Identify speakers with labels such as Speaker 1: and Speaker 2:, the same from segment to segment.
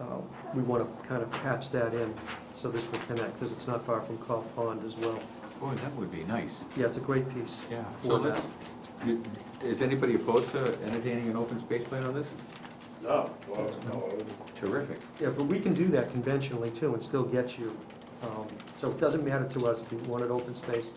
Speaker 1: uh, we want to kind of patch that in so this will connect, because it's not far from Cop Pond as well.
Speaker 2: Boy, that would be nice,
Speaker 1: Yeah, it's a great piece.
Speaker 2: yeah.
Speaker 3: So
Speaker 1: for that.
Speaker 3: let's, you- is anybody opposed to entertaining an open space plan on this?
Speaker 4: No, well, no,
Speaker 3: Terrific.
Speaker 1: Yeah, but we can do that conventionally too and still get you, um, so it doesn't matter to us if you want it open space,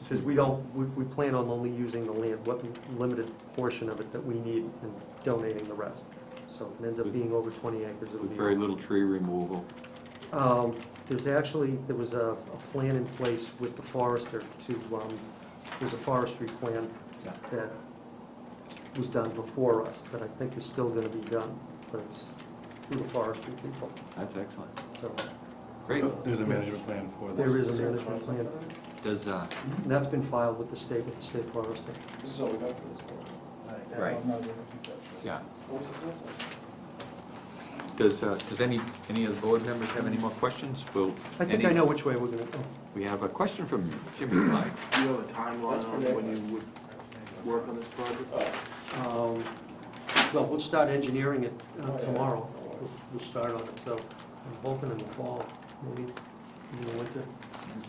Speaker 1: because we don't, we, we plan on only using the land, what limited portion of it that we need and donating the rest. So if it ends up being over twenty acres, it'll
Speaker 3: With
Speaker 1: be.
Speaker 3: very little tree removal.
Speaker 1: Um, There's actually, there was a, a plan in place with the forester to, um, there's a forestry plan
Speaker 3: Yeah.
Speaker 1: that was done before us, that I think is still gonna be done, but it's through the forestry people,
Speaker 3: That's excellent.
Speaker 1: so
Speaker 3: Great.
Speaker 5: There's a management plan for this.
Speaker 1: there is a management plan.
Speaker 3: Does, uh,
Speaker 1: And that's been filed with the state, with the state forester.
Speaker 4: this is all we got for this one.
Speaker 3: Right. yeah,
Speaker 4: What was the last one?
Speaker 3: does, uh, does any, any of the board members have any more questions? Will
Speaker 1: I think I
Speaker 3: any-
Speaker 1: know which way we're gonna go.
Speaker 3: We have a question from Jimmy Clyde.
Speaker 6: Do you have a timeline
Speaker 4: That's for that.
Speaker 6: on when you would work on this project?
Speaker 4: Oh,
Speaker 1: Um, Well, we'll start engineering it
Speaker 3: Oh,
Speaker 1: uh, tomorrow, We'll- we'll start on it, so I'm hoping in the fall, maybe in the winter.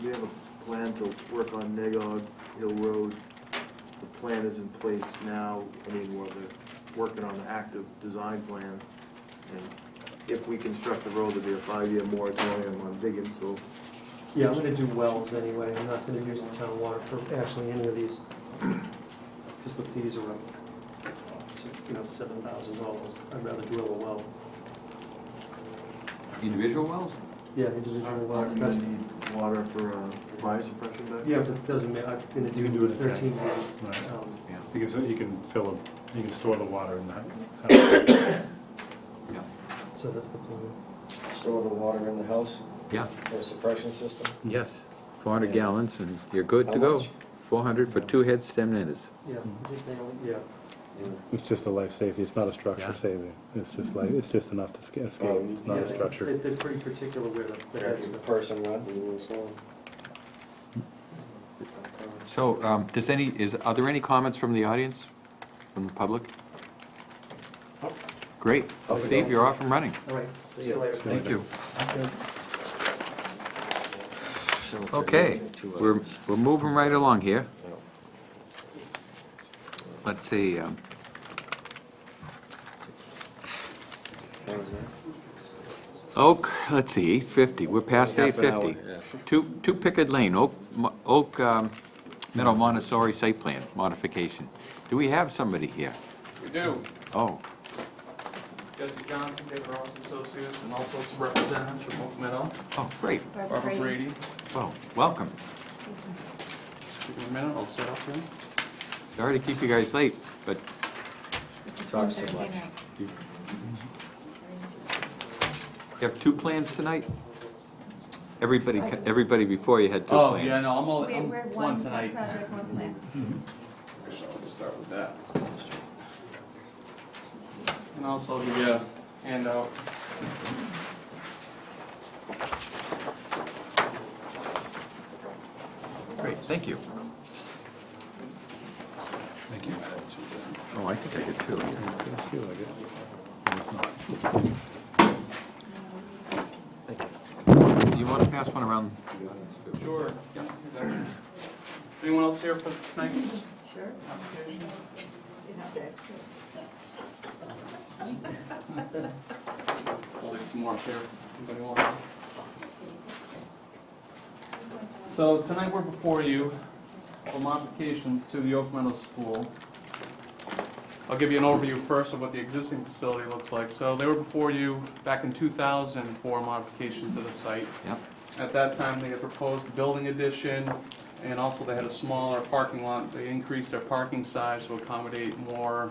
Speaker 6: Do you have a plan to work on Nagog Hill Road? The plan is in place now, I mean, we're working on the active design plan. And if we construct the road, there'll be a five-year moratorium on digging, so
Speaker 1: Yeah, I'm gonna do wells anyway, I'm not gonna use the town water for actually any of these, because the fees are up. So, You know, seven thousand dollars, I'd rather drill a well.
Speaker 3: Individual wells?
Speaker 1: Yeah, individual wells,
Speaker 6: I'm gonna
Speaker 1: that's,
Speaker 6: Uh, need water for uh, fire suppression back
Speaker 1: yeah,
Speaker 6: there.
Speaker 1: but it doesn't matter, I'm gonna
Speaker 5: You can do
Speaker 1: do
Speaker 5: it at
Speaker 1: thirteen.
Speaker 5: Right.
Speaker 1: um,
Speaker 3: Yeah.
Speaker 5: You can, you can fill, a- you can store the water in that.
Speaker 3: Yeah.
Speaker 1: So that's the plan.
Speaker 7: store the water in the house
Speaker 3: Yeah,
Speaker 7: for a suppression system.
Speaker 3: yes. 400 gallons and you're good
Speaker 7: How
Speaker 3: to go.
Speaker 7: much?
Speaker 3: 400 for two head stem netters.
Speaker 1: Yeah, I think they only- yeah.
Speaker 5: It's just a life safety, it's not a
Speaker 3: Yeah.
Speaker 5: structure saving, it's just like, it's just enough to sca- escape,
Speaker 7: Um,
Speaker 5: it's not
Speaker 1: Yeah,
Speaker 5: a
Speaker 1: they-
Speaker 5: structure.
Speaker 1: they- They're pretty particular where the- the heads
Speaker 7: Every
Speaker 1: go.
Speaker 7: person run, we will install.
Speaker 3: So, um, does any, is, are there any comments from the audience, from the public? Great. Well, Steve, you're off and running.
Speaker 1: All right, see you later.
Speaker 5: Thank you.
Speaker 3: Okay,
Speaker 7: uh,
Speaker 3: we're, we're moving right along here. Let's see, um, Oak, let's see, eight fifty, we're past eight
Speaker 7: Half an hour,
Speaker 3: fifty. Two, two Pickard Lane, Oak, Mo- Oak um, Meadow Montessori site plan modification. Do we have somebody here?
Speaker 8: We do.
Speaker 3: Oh,
Speaker 8: Jesse Johnson, Taylor Ross Associates, and also some representatives from Oak Meadow.
Speaker 3: oh, great,
Speaker 8: Barbara Brady.
Speaker 3: well, welcome.
Speaker 8: Give me a minute, I'll set up here.
Speaker 3: Sorry to keep you guys late, but
Speaker 7: Talks too much.
Speaker 3: you have two plans tonight? Everybody, ca- everybody before you had two
Speaker 8: Oh,
Speaker 3: plans.
Speaker 8: yeah, no, I'm only,
Speaker 9: We're,
Speaker 8: I'm
Speaker 9: we're
Speaker 8: one
Speaker 9: one
Speaker 8: tonight.
Speaker 9: project, one plan.
Speaker 4: Let's start with that.
Speaker 8: And also uh, I'll give you a handout.
Speaker 3: Great, thank you.
Speaker 5: Thank you.
Speaker 3: Oh, I think I did too.
Speaker 5: It does feel like it, but it's not.
Speaker 3: Do you want to pass one around?
Speaker 8: Sure. yeah, exactly. Anyone else here for tonight's
Speaker 9: Sure.
Speaker 8: application?
Speaker 9: You have the extra.
Speaker 8: I'll leave some more up there if anybody wants. So tonight we're before you for modifications to the Oak Meadow School. I'll give you an overview first of what the existing facility looks like. So they were before you back in 2000 for a modification to the site.
Speaker 3: Yep.
Speaker 8: At that time, they had proposed a building addition, and also they had a smaller parking lot. They increased their parking size to accommodate more uh,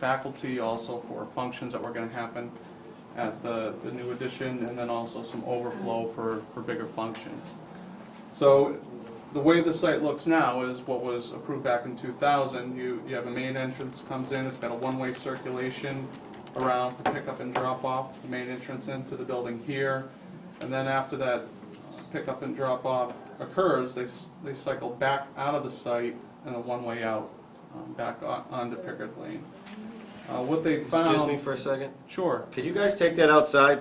Speaker 8: faculty, also for functions that were gonna happen at the, the new addition, and then also some overflow for, for bigger functions. So the way the site looks now is what was approved back in 2000. You, you have a main entrance comes in, it's got a one-way circulation around for pickup and drop-off, the main entrance into the building here. And then after that pickup and drop-off occurs, they, s- they cycle back out of the site and a one-way out, um, back on- onto Pickard Lane. Uh, What they found...
Speaker 7: Excuse me for a second.
Speaker 8: Sure.
Speaker 7: Could you guys take that outside?